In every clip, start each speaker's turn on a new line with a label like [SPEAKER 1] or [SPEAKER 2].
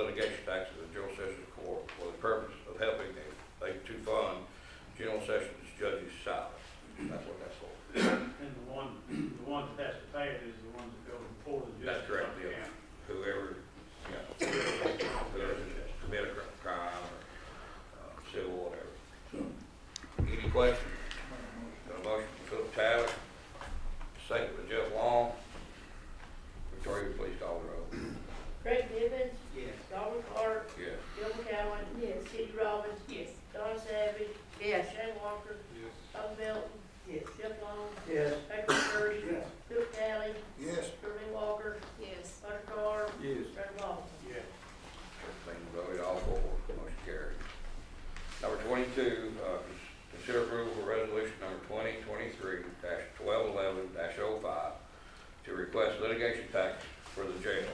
[SPEAKER 1] litigation taxes of general sessions court for the purpose of helping them, they to fund general sessions judges' salaries. That's what that's for.
[SPEAKER 2] And the one, the ones that has to pay it is the ones that go before the judge.
[SPEAKER 1] That's correct, yeah. Whoever, you know, whoever committed a crime or uh, civil, whatever. So, Any questions? Got a motion from Philip Talley, second by Jeff Long. Victoria, please call the roll.
[SPEAKER 3] Craig Nivens,
[SPEAKER 2] Yes.
[SPEAKER 3] Darwin Clark,
[SPEAKER 1] Yes.
[SPEAKER 3] Gil McCowen. Yes. Sid Robbins. Yes. Don Savage. Yes. Shane Walker.
[SPEAKER 2] Yes.
[SPEAKER 3] Bud Melton. Yes. Jeff Long.
[SPEAKER 2] Yes.
[SPEAKER 3] Patrick Curry.
[SPEAKER 2] Yes.
[SPEAKER 3] Phil Talley.
[SPEAKER 4] Yes.
[SPEAKER 3] German Walker. Yes. Hunter Carr.
[SPEAKER 4] Yes.
[SPEAKER 3] Fred Law.
[SPEAKER 2] Yes.
[SPEAKER 1] Everything voted all four, motion carried. Number twenty-two, uh, cons- consider approval of resolution number twenty twenty-three twelve eleven 5 to request litigation tax for the jail.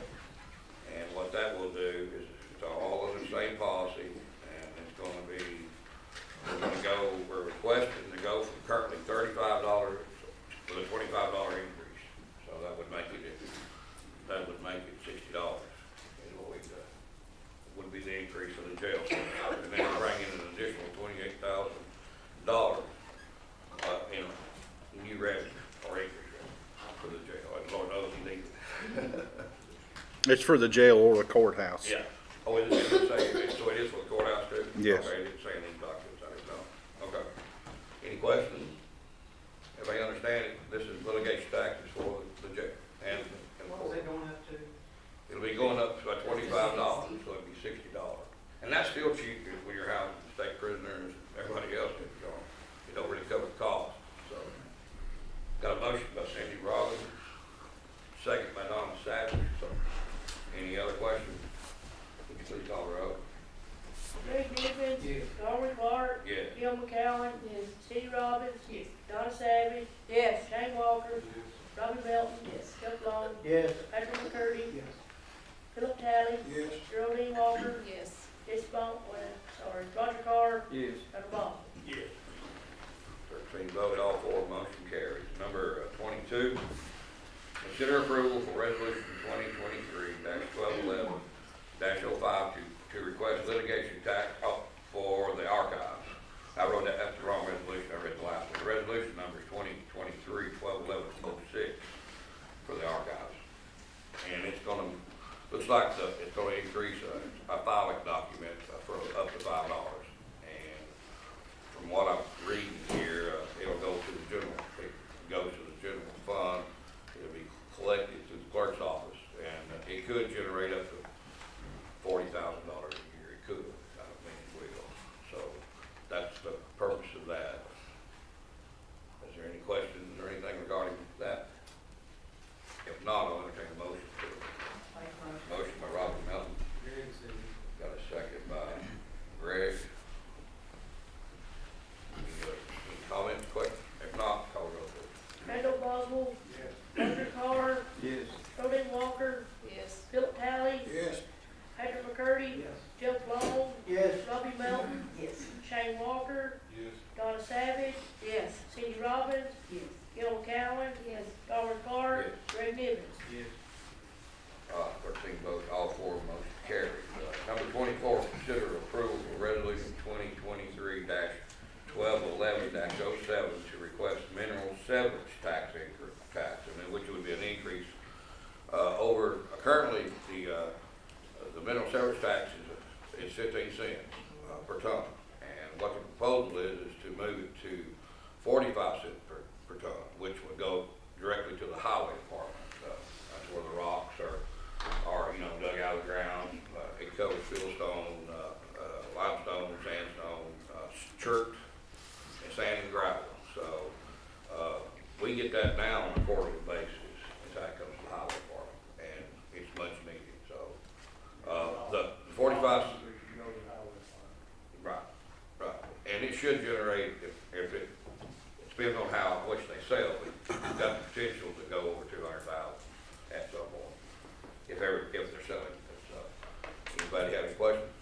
[SPEAKER 1] And what that will do is it's all under the same policy and it's gonna be, we're gonna go, we're requesting to go from currently thirty-five dollars to a twenty-five dollar increase. So that would make it, that would make it sixty dollars is what we've done would be the increase of the jail. And then bring in an additional twenty-eight thousand dollars, uh, in new revenue or increase revenue for the jail. And Lord knows he needs it.
[SPEAKER 5] It's for the jail or the courthouse.
[SPEAKER 1] Yeah. Oh, it is, it's saying, so it is for the courthouse too?
[SPEAKER 5] Yes.
[SPEAKER 1] Okay, it didn't say any documents, I didn't know. Okay. Any questions? Everybody understand it? This is litigation taxes for the jail and, and
[SPEAKER 6] What was that going up to?
[SPEAKER 1] It'll be going up by twenty-five dollars, so it'll be sixty dollars. And that's still cheap if when you're housing state prisoners, and everybody else is gone. It don't really cover the cost, so. Got a motion by Sandy Robbins, second by Donna Savage, so. Any other questions? Would you please call the roll?
[SPEAKER 3] Craig Nivens.
[SPEAKER 6] Yes.
[SPEAKER 3] Darwin Clark.
[SPEAKER 1] Yes.
[SPEAKER 3] Gil McCowen. Yes. Sid Robbins. Yes. Don Savage. Yes. Shane Walker. Robbie Melton. Yes. Jeff Long.
[SPEAKER 2] Yes.
[SPEAKER 3] Patrick McCurdy.
[SPEAKER 6] Yes.
[SPEAKER 3] Philip Talley.
[SPEAKER 4] Yes.
[SPEAKER 3] Geraldine Walker.
[SPEAKER 7] Yes.
[SPEAKER 3] Jesse Bunk, well, sorry, Roger Carr,
[SPEAKER 6] Yes.
[SPEAKER 3] Roger Ball.
[SPEAKER 2] Yes.
[SPEAKER 1] Thirteen voted, all four, motion carries. Number uh, twenty-two, consider approval for resolution twenty twenty-three twelve eleven 5 to, to request litigation tax up for the archives. I wrote that, that's the wrong resolution, I read the last one. The Resolution number is twenty twenty-three twelve eleven oh six for the archives. And it's gonna, looks like the, it's gonna increase uh, a, a filing document uh, for up to five dollars. And from what I'm reading here, uh, it'll go to the general, it goes to the general fund, it'll be collected through the clerk's office, and it could generate up to forty thousand dollars a year, it could, I don't mean it will, so that's the purpose of that. Is there any questions or anything regarding that? If not, I'll entertain a motion. Motion by Robert Melton, Got a second by Greg. Any other Comments, questions? If not, call roll please.
[SPEAKER 3] Randall Boswell,
[SPEAKER 2] Yes.
[SPEAKER 3] Roger Carr,
[SPEAKER 4] Yes.
[SPEAKER 3] Rodan Walker,
[SPEAKER 7] Yes.
[SPEAKER 3] Philip Talley,
[SPEAKER 4] Yes.
[SPEAKER 3] Patrick McCurdy,
[SPEAKER 2] Yes.
[SPEAKER 3] Jeff Long,
[SPEAKER 2] Yes.
[SPEAKER 3] Robbie Melton,
[SPEAKER 7] Yes.
[SPEAKER 3] Shane Walker,
[SPEAKER 4] Yes.
[SPEAKER 3] Donna Savage,
[SPEAKER 7] Yes.
[SPEAKER 3] Cindy Robbins,
[SPEAKER 7] Yes.
[SPEAKER 3] Gil McCowen,
[SPEAKER 7] Yes.
[SPEAKER 3] Darwin Clark, Greg Nivens.
[SPEAKER 2] Yes.
[SPEAKER 1] Uh, thirteen votes, all four motion carried. Uh, Number twenty-four, consider approval of resolution twenty twenty-three twelve eleven 7 to request mineral severance tax increase, tax, I mean, which would be an increase, uh, over, currently, the, uh, the mineral severance tax is, is fifteen cents, uh, per ton. And what the proposal is, is to move it to forty-five cents per, per ton, which would go directly to the highway department. Uh, That's where the rocks are, are, you know, dug out of the ground. Uh, It covers fieldstone, uh, uh, limestone, sandstone, uh, chert, and sand and gravel. So, uh, we get that now on a quarterly basis, as that comes to the highway department, and it's much needed, so. Uh, the forty-five,
[SPEAKER 2] Go to the highway fund.
[SPEAKER 1] Right, right, and it should generate, if, if it, it depends on how, which they sell, but it's got the potential to go over two hundred thousand at some point. If ever, if they're selling it, so, anybody have any questions? Uh,